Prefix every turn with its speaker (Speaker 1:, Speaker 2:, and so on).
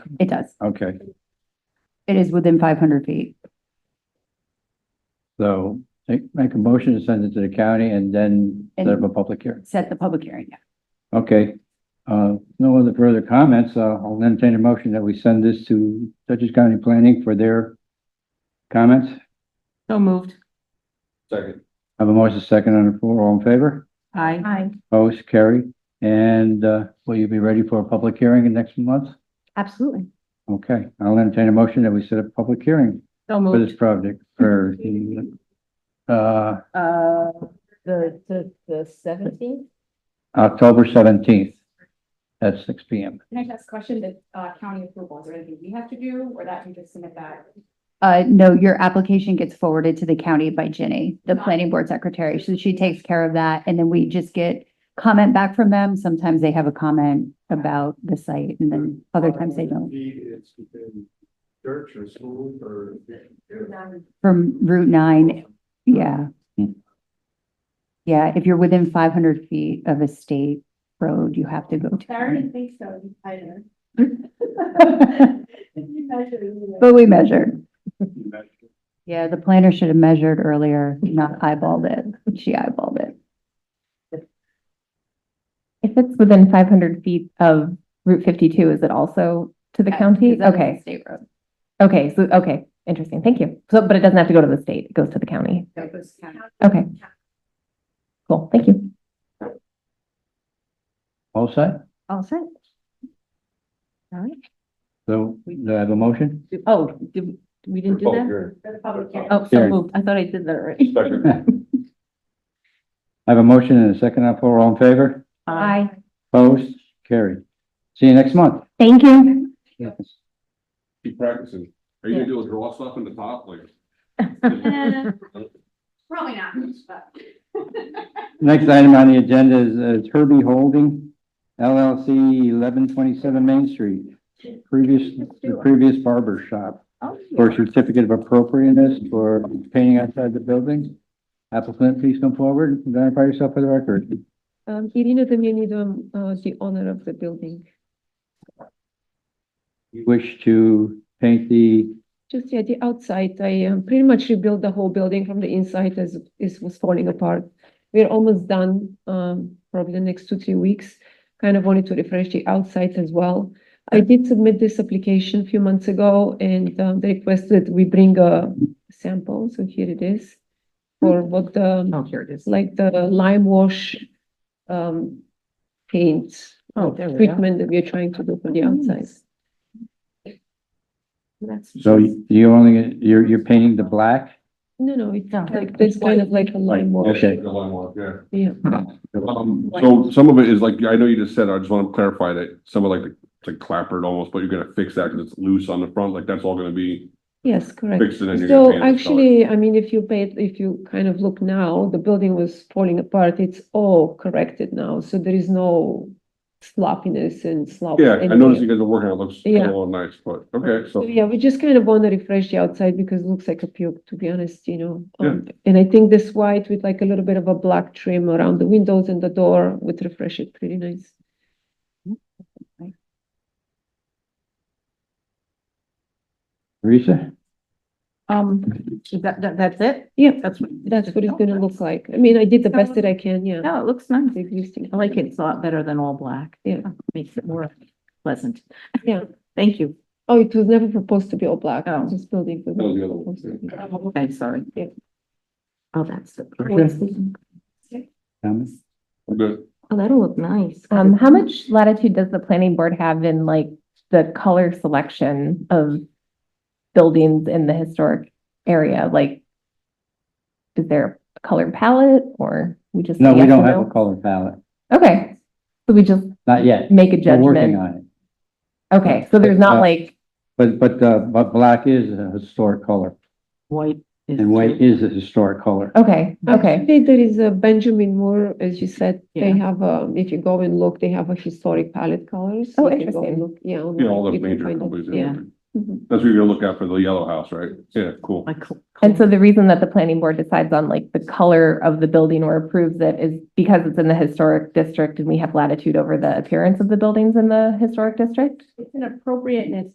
Speaker 1: It does.
Speaker 2: Okay,
Speaker 1: It is within five hundred feet.
Speaker 2: so make make a motion to send it to the county and then set up a public hearing.
Speaker 1: Set the public hearing.
Speaker 2: Okay, uh, no other further comments. Uh, I'll entertain a motion that we send this to Dutchess County Planning for their comments.
Speaker 3: So moved.
Speaker 4: Second.
Speaker 2: Have a motion second on the floor. All in favor?
Speaker 3: Aye.
Speaker 1: Aye.
Speaker 2: Opposed? Carry. And, uh, will you be ready for a public hearing in next month?
Speaker 1: Absolutely.
Speaker 2: Okay, I'll entertain a motion that we set up a public hearing
Speaker 3: So
Speaker 2: for this
Speaker 3: moved.
Speaker 2: project for the, uh,
Speaker 3: Uh, the, the, the seventeenth?
Speaker 2: October seventeenth at six P M.
Speaker 5: Can I just question the uh, county approvals or anything we have to do or that you just submit that?
Speaker 1: Uh, no, your application gets forwarded to the county by Jenny, the planning board secretary. So she takes care of that. And then we just get comment back from them. Sometimes they have a comment about the site and then
Speaker 6: Mm-hmm.
Speaker 1: other times they don't.
Speaker 4: Indeed, it's within church or school or.
Speaker 1: From Route nine, yeah.
Speaker 2: Hmm.
Speaker 1: Yeah, if you're within five hundred feet of a state road, you have to go to.
Speaker 5: I already think so, I know. You measure it.
Speaker 1: But we measured. Yeah, the planner should have measured earlier, not eyeballed it. She eyeballed it.
Speaker 7: If it's within five hundred feet of Route fifty-two, is it also to the
Speaker 3: Uh,
Speaker 7: county?
Speaker 1: Because that's a
Speaker 7: Okay,
Speaker 1: State road.
Speaker 7: okay, so, okay, interesting, thank you. So, but it doesn't have to go to the state, it goes to the county.
Speaker 5: That was kind of-
Speaker 7: Okay. Cool, thank you.
Speaker 2: All set?
Speaker 1: All set.
Speaker 2: So, do I have a motion?
Speaker 3: Oh, did, we didn't
Speaker 6: Oh,
Speaker 3: do that?
Speaker 5: For the public hearing.
Speaker 3: Oh, so
Speaker 2: Karen.
Speaker 3: moved. I thought I did that already.
Speaker 2: I have a motion and a second on the floor. All in favor?
Speaker 3: Aye.
Speaker 2: Opposed? Carried. See you next month.
Speaker 7: Thank you.
Speaker 4: Keep practicing. Are you gonna do a draw stuff in the top like?
Speaker 5: Eh, Probably not, but.
Speaker 2: Next item on the agenda is uh, Herbie Holding LLC, eleven twenty-seven Main Street. Previous, the previous barber shop for certificate of appropriateness for painting outside the building. Applicant, please come forward. Identify yourself for the record.
Speaker 8: Um, Irina Damianidou, uh, the owner of the building.
Speaker 2: You wish to paint the
Speaker 8: Just yeah, the outside, I um, pretty much rebuilt the whole building from the inside as it was falling apart. We're almost done, um, probably the next two, three weeks. Kind of wanted to refresh the outside as well. I did submit this application a few months ago and um, they requested we bring a sample, so here it is. For what the, um,
Speaker 3: Oh, here it is.
Speaker 8: like the lime wash, um, paint.
Speaker 3: Oh,
Speaker 8: uh,
Speaker 3: there we are.
Speaker 8: Treatment that we're trying to do for
Speaker 3: Oh,
Speaker 8: the outside.
Speaker 3: That's-
Speaker 2: So you only, you're, you're painting the black?
Speaker 8: No, no, it's
Speaker 3: No.
Speaker 8: like, it's kind of like a lime wash.
Speaker 2: Okay.
Speaker 4: The line walk, yeah.
Speaker 8: Yeah,
Speaker 6: Um, so some of it is like, I know you just said, I just want to clarify that some of like, the- it's like clappered almost, but you're gonna fix that because it's loose on the front, like that's all gonna be
Speaker 8: yes, correct.
Speaker 6: fixed and then you're gonna
Speaker 8: So
Speaker 6: paint it.
Speaker 8: actually, I mean, if you paid, if you kind of look now, the building was falling apart. It's all corrected now, so there is no sloppiness and slop.
Speaker 6: Yeah, I
Speaker 8: anywhere.
Speaker 6: noticed you guys are working, on it it looks
Speaker 8: Yeah.
Speaker 6: a little nice, but, okay,
Speaker 8: So
Speaker 6: so.
Speaker 8: yeah, we just kind of want to refresh the outside because it looks like a puke, to be honest, you know.
Speaker 6: Yeah.
Speaker 8: Um, And I think this white with like a little bit of a black trim around the windows and the door would refresh it pretty nice.
Speaker 2: Teresa?
Speaker 3: Um, that, that, that's it?
Speaker 8: Yeah,
Speaker 3: That's what.
Speaker 8: that's what it's gonna look like. I mean, I did the best that I can, yeah.
Speaker 3: No, it looks nice.
Speaker 8: The existing.
Speaker 3: I like it. It's a lot better than all black.
Speaker 8: Yeah.
Speaker 3: Makes it more pleasant.
Speaker 8: Yeah.
Speaker 3: Thank you.
Speaker 8: Oh, it was never proposed to be all black.
Speaker 3: Oh.
Speaker 8: This building. was
Speaker 6: That was the
Speaker 8: never
Speaker 6: other one,
Speaker 8: proposed to be.
Speaker 3: Okay, sorry.
Speaker 8: Yeah.
Speaker 3: Oh, that's the.
Speaker 2: Comments?
Speaker 6: We're good.
Speaker 3: Oh, that'll look nice.
Speaker 7: Um, how much latitude does the planning board have in like the color selection of buildings in the historic area? Like, is there a color palette or we just?
Speaker 2: No,
Speaker 7: say
Speaker 2: we
Speaker 7: yes
Speaker 2: don't
Speaker 7: or
Speaker 2: have a
Speaker 7: no?
Speaker 2: color palette,
Speaker 7: Okay, so we just
Speaker 2: not yet.
Speaker 7: make a
Speaker 2: We're working
Speaker 7: judgment.
Speaker 2: on it.
Speaker 7: Okay, so there's not
Speaker 2: Uh,
Speaker 7: like,
Speaker 2: But, but, uh, but black is a historic color
Speaker 3: White. is
Speaker 2: and white is a historic color.
Speaker 7: okay, okay.
Speaker 8: Actually, there is a Benjamin Moore, as you said, they
Speaker 3: Yeah.
Speaker 8: have, um, if you go and look, they have a historic palette colors. You can
Speaker 7: Oh,
Speaker 8: go
Speaker 7: interesting.
Speaker 8: and look, Yeah.
Speaker 6: You know, all
Speaker 8: online,
Speaker 6: the
Speaker 8: you can
Speaker 6: major
Speaker 8: find it.
Speaker 6: companies. and
Speaker 3: yeah.
Speaker 6: everything.
Speaker 8: Mhm.
Speaker 6: That's what you're gonna look at for the yellow house, right? Yeah, cool.
Speaker 3: Like cl-
Speaker 7: And so the reason that the planning board decides on like the color of the building or approves it is because it's in the historic district and we have latitude over the appearance of the buildings in the historic district?
Speaker 5: It's an appropriateness